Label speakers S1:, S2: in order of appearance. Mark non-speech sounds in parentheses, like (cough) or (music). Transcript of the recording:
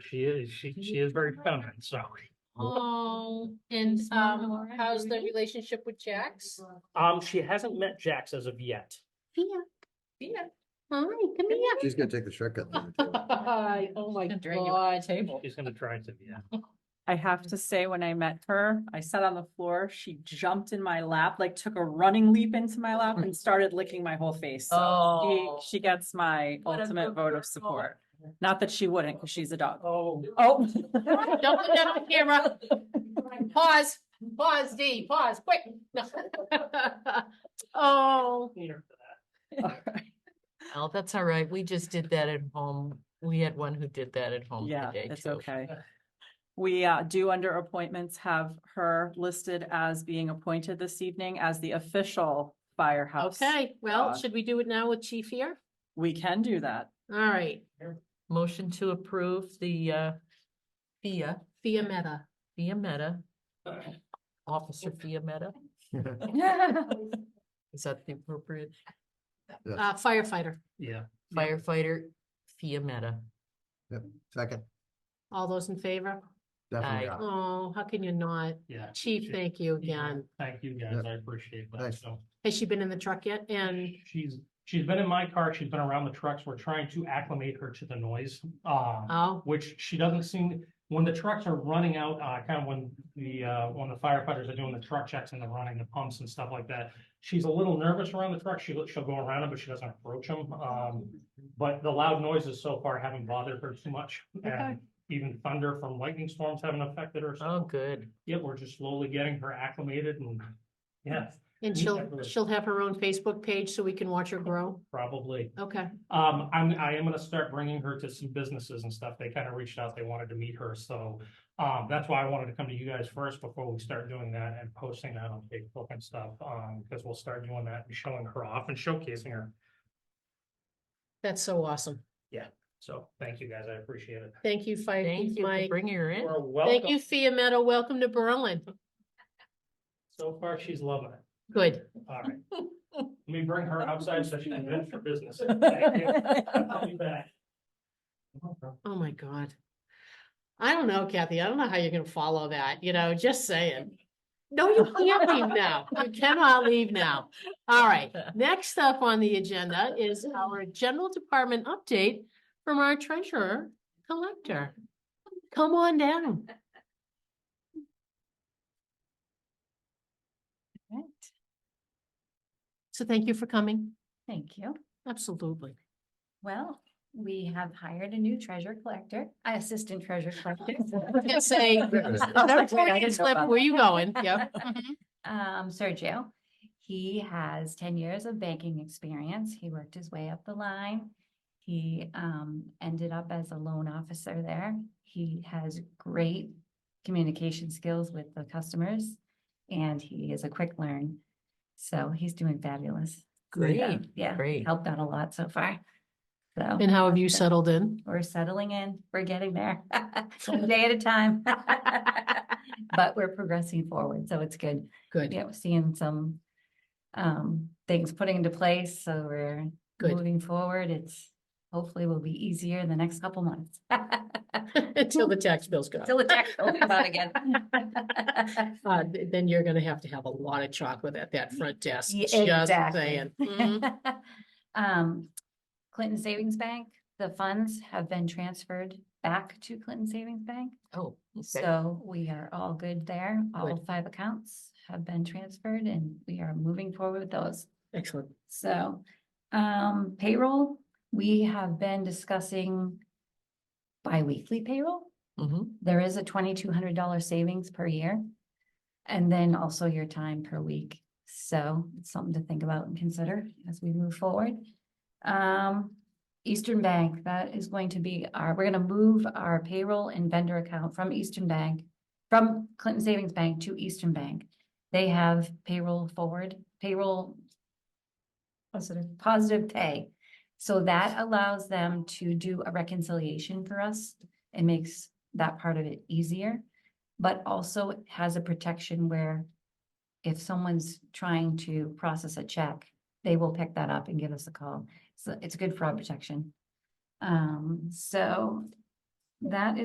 S1: She is, she, she is very feminine, so.
S2: Oh, and
S3: Is Mona all
S2: um,
S3: right,
S2: how's the
S3: Marie?
S2: relationship with Jax?
S1: Um, she hasn't met Jax as of yet.
S2: Fia,
S3: Yeah.
S2: hi, come here.
S4: She's gonna take the shortcut. later, too.
S2: (laughs) Hi, Oh my
S3: Drag you out
S2: god.
S3: the Table.
S1: She's gonna try to, yeah.
S5: I have to say, when I met her, I sat on the floor, she jumped in my lap, like took a running leap into my lap and started licking my whole face. So
S3: Oh.
S5: she, she gets my
S3: What a
S5: ultimate
S3: good
S5: vote
S3: girl.
S5: of support. Not that she wouldn't, because she's a dog.
S1: Oh,
S3: (laughs)
S5: Oh.
S2: Don't
S5: (laughs)
S2: put that on camera. Pause, pause, D, pause, quick. No. (laughs) Oh,
S3: Oh, that's all right. We just did that at home. We had one who did that at home
S5: Yeah,
S3: today
S5: it's
S3: too.
S5: okay. We uh, do under appointments have her listed as being appointed this evening as the official firehouse.
S2: okay, well,
S5: Uh,
S2: should we do it now with Chief here?
S5: We can do
S3: (laughs)
S5: that.
S2: All right,
S3: Motion to approve the uh FIA,
S2: Fia Meta.
S3: FIA Meta. Officer FIA Meta, is that the appropriate
S2: uh, firefighter.
S1: yeah.
S3: firefighter FIA Meta?
S4: Second,
S2: All those in favor?
S4: definitely.
S3: Aye.
S4: yeah.
S2: Oh, how can you not?
S1: Yeah.
S2: Chief,
S1: She-
S2: thank you
S1: yeah,
S2: again.
S1: Thank you guys,
S4: Yeah.
S1: I appreciate that,
S4: Thanks.
S1: so.
S2: Has she been in the truck yet? And
S1: She's, she's been in my car, she's been around the trucks, we're trying to acclimate her to the noise. Um,
S2: Oh,
S1: which she doesn't seem, when the trucks are running out, uh, kind of when the, uh, when the firefighters are doing the truck checks and they're running the pumps and stuff like that. She's a little nervous around the truck. She, she'll go around them, but she doesn't approach them. Um, but the loud noises so far haven't bothered her too much.
S5: Okay.
S1: And even thunder from lightning storms haven't affected her.
S3: Oh,
S1: So,
S3: good.
S1: yeah, we're just slowly getting her acclimated and, yeah,
S2: and
S1: Yeah,
S2: she'll,
S1: really.
S2: she'll have her own Facebook page so we can watch her grow?
S1: probably.
S2: Okay,
S1: Um, I'm, I am gonna start bringing her to some businesses and stuff. They kind of reached out, they wanted to meet her, so. Um, that's why I wanted to come to you guys first before we start doing that and posting that on Facebook and stuff, um, because we'll start doing that and showing her off and showcasing her.
S2: that's so awesome.
S1: So, thank you guys, I appreciate it.
S2: Thank you, Fire
S3: Thank
S2: Chief
S3: you for
S2: Mike.
S3: bringing her in.
S1: You're
S2: Thank
S1: welcome.
S2: you, Fia Meadow. Welcome to Berlin.
S1: So far, she's loving it.
S2: Good.
S1: All right. Let me bring her outside so she can vent for
S2: (laughs)
S1: business. Thank you. I'll be back.
S2: Oh, my God. I don't know, Kathy. I don't know how you're gonna follow that, you know, just saying. No, you (laughs) can't leave now. You cannot leave now. All right. Next up on the agenda is our general department update from our treasurer collector. Come on down.
S6: Right,
S2: So thank you for coming.
S6: thank you.
S2: Absolutely.
S6: Well, we have hired a new treasure collector, uh, assistant treasure
S2: (laughs)
S6: collector.
S2: Can't
S6: (laughs)
S2: say.
S6: That's right, I didn't know
S2: Slip,
S6: about
S2: Where you going?
S6: (laughs)
S2: Yep. Mm-hmm.
S6: Um, Sergio, he has ten years of banking experience. He worked his way up the line. He, um, ended up as a loan officer there. He has great communication skills with the customers. And he is a quick learn. So he's doing fabulous. Yeah,
S3: Great,
S6: Yeah,
S3: great.
S6: helped out a lot so far. So.
S2: And how have you settled in? (laughs)
S6: We're settling in. We're getting there. (laughs) One day at a time. (laughs) But we're progressing forward, so it's good.
S2: Good,
S6: Yeah, we're seeing some um things putting into place, so we're
S2: good.
S6: moving forward. It's hopefully will be easier in the next couple months. (laughs)
S2: (laughs) Until the tax bills go.
S6: Till the tax bill comes out again. (laughs)
S2: Uh, th- then you're gonna have to have a lot of chocolate at that front desk,
S6: Ye-
S2: just
S6: exactly. (laughs)
S2: saying. Mhm.
S6: Um, Clinton Savings Bank, the funds have been transferred back to Clinton Savings Bank.
S3: Oh, okay.
S6: So we are all good there. All
S2: Good.
S6: five accounts have been transferred and we are moving forward with those.
S2: Excellent.
S6: So, um, payroll, we have been discussing biweekly payroll.
S2: Mm-hmm.
S3: Mhm.
S6: There is a twenty-two hundred dollar savings per year. And then also your time per week. So it's something to think about and consider as we move forward. Um, Eastern Bank, that is going to be our, we're gonna move our payroll and vendor account from Eastern Bank, from Clinton Savings Bank to Eastern Bank. They have payroll forward, payroll positive, positive pay. So that allows them to do a reconciliation for us. It makes that part of it easier, but also it has a protection where if someone's trying to process a check, they will pick that up and give us a call. So it's good fraud protection. Um, so that is.